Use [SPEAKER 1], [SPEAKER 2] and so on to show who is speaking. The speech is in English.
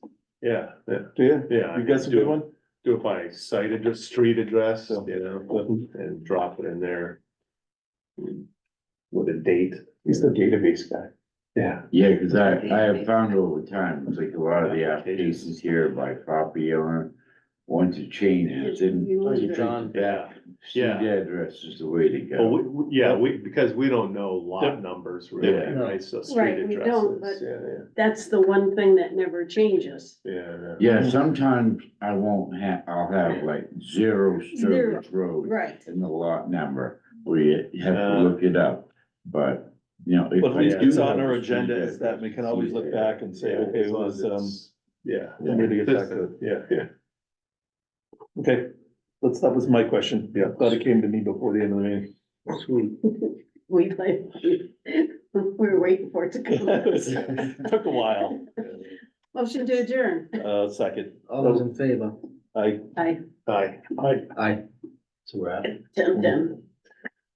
[SPEAKER 1] Yeah, yeah,
[SPEAKER 2] Do you?
[SPEAKER 1] yeah.
[SPEAKER 2] You got some good one?
[SPEAKER 1] Do it by site address, street address,
[SPEAKER 2] So-
[SPEAKER 1] you know, and drop it in there. With a date,
[SPEAKER 2] He's the database guy.
[SPEAKER 1] yeah.
[SPEAKER 3] Yeah, cause I, I have found over time, it's like a lot of the applications here by property owner want to change it, and
[SPEAKER 4] You lose
[SPEAKER 5] you
[SPEAKER 4] it.
[SPEAKER 5] John?
[SPEAKER 1] Yeah,
[SPEAKER 3] street address is the way to
[SPEAKER 1] well,
[SPEAKER 3] go.
[SPEAKER 1] we, we- yeah, we, because we don't know lot numbers really,
[SPEAKER 3] Yeah.
[SPEAKER 1] right, so street
[SPEAKER 4] Right, we don't,
[SPEAKER 1] addresses, yeah,
[SPEAKER 4] That's the one thing that never changes.
[SPEAKER 1] yeah, yeah.
[SPEAKER 3] Yeah, sometimes I won't have, I'll have like zero
[SPEAKER 4] Zero,
[SPEAKER 3] Sturbridge Road
[SPEAKER 4] Right.
[SPEAKER 3] in the lot number, where you have to look it up, but, you know. if
[SPEAKER 2] But at
[SPEAKER 3] I
[SPEAKER 2] least
[SPEAKER 3] do
[SPEAKER 2] it's on
[SPEAKER 3] have
[SPEAKER 2] our
[SPEAKER 3] a street
[SPEAKER 2] agenda, is that we can always look back and say,
[SPEAKER 1] Yeah,
[SPEAKER 2] okay,
[SPEAKER 1] as
[SPEAKER 2] it
[SPEAKER 1] long
[SPEAKER 2] was,
[SPEAKER 1] as
[SPEAKER 2] um,
[SPEAKER 1] it's- Yeah.
[SPEAKER 2] we need to get back to it.
[SPEAKER 1] Yeah, yeah.
[SPEAKER 2] okay, that's, that was my question.
[SPEAKER 1] Yeah.
[SPEAKER 2] Glad it came to me before the end of the meeting.
[SPEAKER 4] We like, we were waiting for it to come.
[SPEAKER 2] Took a while,
[SPEAKER 4] Motion to adjourn.
[SPEAKER 2] uh, second,
[SPEAKER 5] All those in favor?
[SPEAKER 2] I,
[SPEAKER 4] I,
[SPEAKER 1] Aye.
[SPEAKER 5] Aye. So we're out.
[SPEAKER 4] Tim, Tim.